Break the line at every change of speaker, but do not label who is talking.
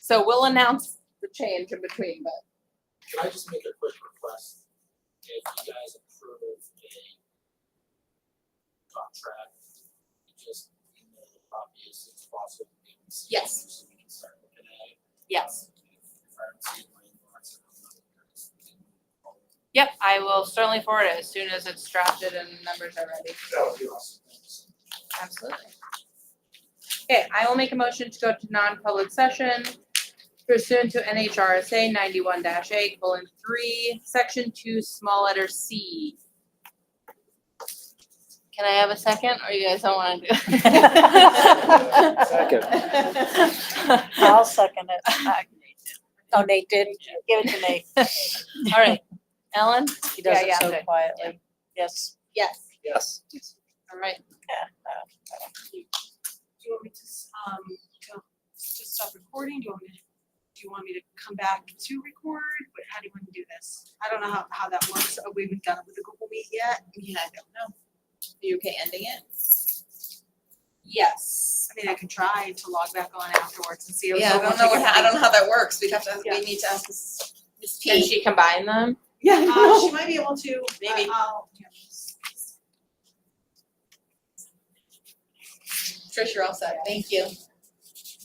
So we'll announce the change in between, but
Can I just make a quick request? If you guys approve of a contract, just email the copy as soon as possible. we can see it,
Yes.
So we can start looking at it.
yes.
If I don't see it, my inbox, I'm not curious.
Yep, I will certainly forward it as soon as it's drafted and numbers are ready.
That would be awesome, thanks.
Absolutely. Okay, I will make a motion to go to non-public session pursuant to NHRSA ninety-one dash eight, colon, three, section two, small letter C. Can I have a second, or you guys don't wanna do? it?
I'll second it. Oh, Nate did. Give it to Nate.
All right, Ellen?
He does
Yeah,
it
yeah,
so
okay.
quietly. Yes.
Yes.
Yes.
All right,
Do you want me to, s- um, to, to stop recording? Do you want me to, do you want me to come back to record? What, how do you want to do this? I don't know how, how that works. Are we done with the Google Meet yet? Yeah, I don't know.
are you okay ending it? Yes.
I mean, I can try to log back on afterwards and see.
Yeah, I don't know what, ha- I don't know how that works, we'd have to,
Yeah.
we need to ask Ms. Ms. P.
Can she combine them?
Yeah,
Uh, she might be able to. I-
Maybe.
I'll, yeah.
Trish, you're all set, thank you.